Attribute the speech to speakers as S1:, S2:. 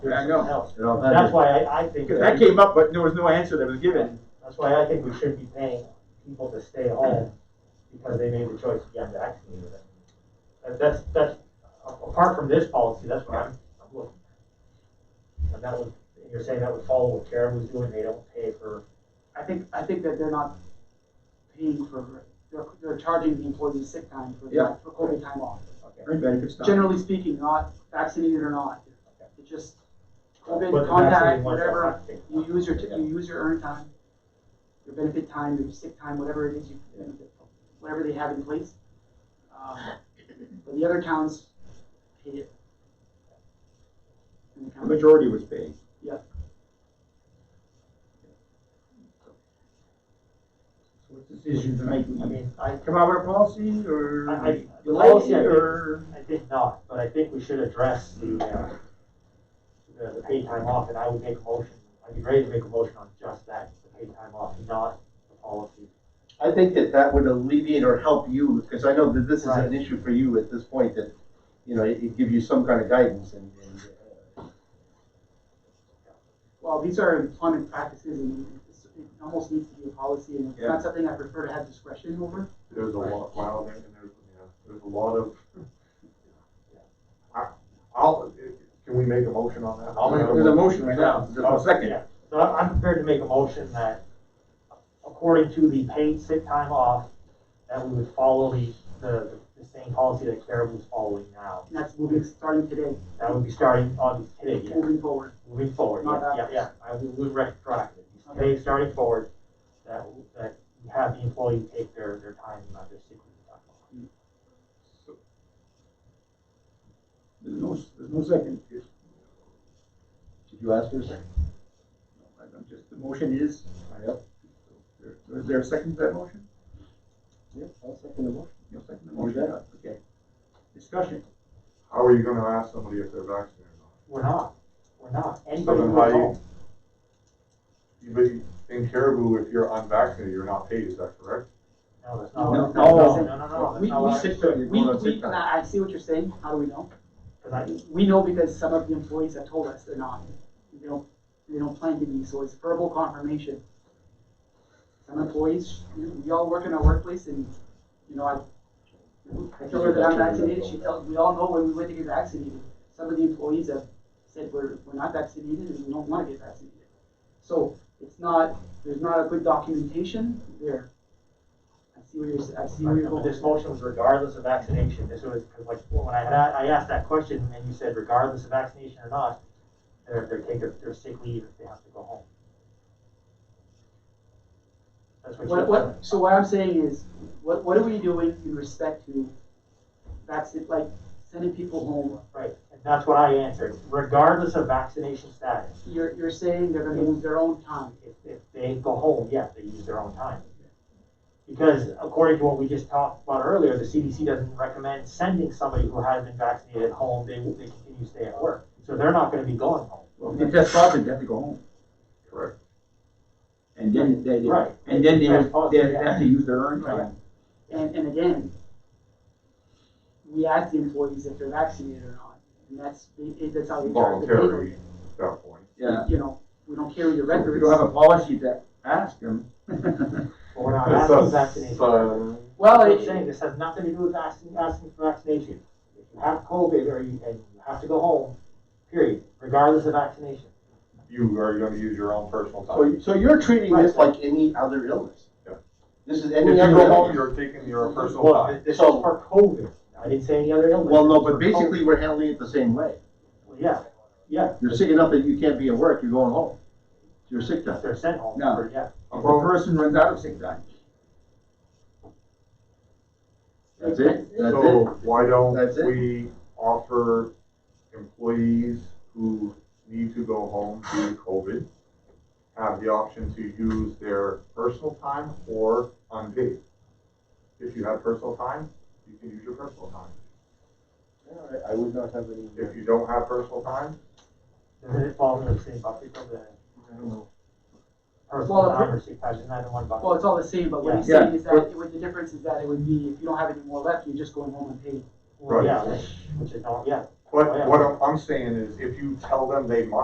S1: I know.
S2: It all
S3: That's
S2: depends.
S3: why I, I think,
S1: Because
S3: that-
S1: that came up, but there was no answer that was given.
S3: that's why I think we should be paying people to stay home because they made the choice to get vaccinated. And that's, that's, apart from this policy, that's what I'm, I'm looking at. And that would, you're saying that would follow what Karen was doing, they don't pay for,
S4: I think, I think that they're not paying for, they're, they're charging the employees sick time for,
S1: Yeah.
S4: for COVID time off.
S1: Any benefits not.
S4: Generally speaking, not vaccinated or not, it's just
S3: But
S4: COVID
S3: the
S4: contact,
S3: vaccinated ones don't
S4: whatever,
S3: have to take
S4: you use your,
S3: Yeah.
S4: you use your earned time, your benefit time, your sick time, whatever it is you, whatever they have in place. Um, But the other towns pay it. And the
S1: The
S4: county-
S1: majority was paid.
S4: Yeah.
S1: So what decisions are making?
S3: I mean, I,
S1: Come out with a policy or
S3: I- I- the
S1: delay
S3: policy, I think-
S1: or?
S3: I think not, but I think we should address the, uh, the, the paid time off, and I would make a motion, I'd be ready to make a motion on just that, the paid time off, not the policy.
S2: I think that that would alleviate or help you, because I know that this is
S3: Right.
S2: an issue for you at this point, that, you know, it, it give you some kind of guidance and, and, uh,
S4: Well, these are employment practices and it's- it almost needs to be a policy and it's
S1: Yeah.
S4: not something I prefer to have discretion over.
S5: There's a lot, wow, there- and there's, yeah, there's a lot of. I, I'll, can we make a motion on that?
S1: I'll make a- There's a motion right now, there's no second.
S3: Yeah. So I'm, I'm prepared to make a motion that according to the paid sick time off, that we would follow the, the, the same policy that Caribou's following now.
S4: And that's moving, starting today,
S3: That would be starting on today, yeah.
S4: moving forward.
S3: moving forward,
S4: Not
S3: yeah, yeah,
S4: backwards.
S3: yeah, I would, would retroactive.
S4: Okay.
S3: Today, starting forward, that, that you have the employee take their, their time, not their sick leave time.
S1: There's no, there's no second.
S2: did you ask for a second?
S1: I'm just, the motion is,
S2: Yep.
S1: there- is there a second to that motion?
S2: Yeah, I'll second the motion.
S1: No second to the motion, okay. Discussion.
S5: How are you gonna ask somebody if they're vaccinated or
S3: We're not, we're not,
S5: not?
S3: anybody
S5: So
S3: who
S5: then
S3: goes
S5: how
S3: home,
S5: you, but you- in Caribou, if you're unvaccinated, you're not paid, is that correct?
S3: no, that's not,
S1: No,
S3: what- no, no, no,
S4: no.
S3: no, no, that's
S4: We,
S3: not
S4: we
S3: what I,
S4: sit
S1: understood.
S4: there.
S1: You're
S4: we,
S1: going on
S4: we,
S1: sick time.
S4: and I I see what you're saying, how do we know?
S3: cause I,
S4: We know because some of the employees have told us they're not, they don't, they don't plan to be, so it's verbal confirmation. Some employees, you know, we all work in our workplace and, you know, I, I tell her that I'm vaccinated, she tells, we all know when we went to get vaccinated. Some of the employees have said we're, we're not vaccinated and we don't wanna get vaccinated. So it's not, there's not a good documentation there. I see where you're, s- I see where you're
S3: But
S4: going.
S3: This motion was regardless of vaccination, this was, cause like, when I had, I asked that question, and you said regardless of vaccination or not, they're, they're taking their sick leave if they have to go home. That's what you
S4: What, what, so what I'm saying is, what, what are we doing in respect to vaccine, like sending people home?
S3: Right, and that's what I answered, regardless of vaccination status,
S4: You're, you're saying they're gonna use their own time.
S3: if, if they go home, yes, they use their own time. Because according to what we just talked about earlier, the CDC doesn't recommend sending somebody who has been vaccinated home, they, they continue to stay at work, so they're not gonna be going home.
S1: Well, if they test positive, they have to go home.
S5: Correct.
S1: And then they, they-
S3: Right.
S1: and then they,
S3: Test
S1: would-
S3: positive,
S1: they
S3: yeah.
S1: have to use their earned time.
S4: And, and again, we ask the employees if they're vaccinated or not, and that's, it, it- that's how we track the
S5: Voluntary.
S4: data.
S5: At that point,
S1: Yeah.
S4: You know, we don't carry the
S1: If you
S4: records.
S1: don't have a policy to ask them.
S3: But we're not
S5: That's
S3: asking
S5: us,
S3: vaccination.
S5: uh,
S3: Well,
S4: Well,
S3: I'm
S4: it-
S3: saying, this has nothing to do with asking, asking for vaccination. If you have COVID or you, and you have to go home, period, regardless of vaccination.
S5: you are gonna use your own personal
S2: So,
S5: time.
S2: you- so you're treating this like any other illness?
S5: Yeah.
S2: This is
S5: If
S2: any
S5: you
S2: other
S5: go home,
S2: illness?
S5: you're taking your personal
S3: Well,
S5: time.
S3: this is
S2: So-
S3: for COVID. I didn't say any other illness.
S2: Well, no,
S3: It's for
S2: but basically, we're handling it the same way.
S3: COVID. Yeah, yeah,
S2: You're sick enough that you can't be at work, you're going home. You're sick time.
S3: if they're sent home,
S1: No.
S3: or, yeah.
S1: If a person runs out of sick time.
S2: That's it, that's
S5: So
S2: it.
S5: why
S2: That's it.
S5: don't we offer employees who need to go home due to COVID have the option to use their personal time or unpaid? If you have personal time, you can use your personal time.
S2: Alright, I would not have any.
S5: If you don't have personal time,
S3: Doesn't it fall in the same bucket of the
S2: I don't know.
S3: personal
S4: Well,
S3: time or sick time, isn't that in one bucket?
S4: Well, it's all the same, but what he's
S1: Yeah.
S4: saying is that, what the difference is that it would be, if you don't have any more left, you're just going home and paid.
S3: Well,
S5: Right.
S3: Yeah, which which is, not- yeah,
S5: what, what I'm- I'm saying is if you tell them they must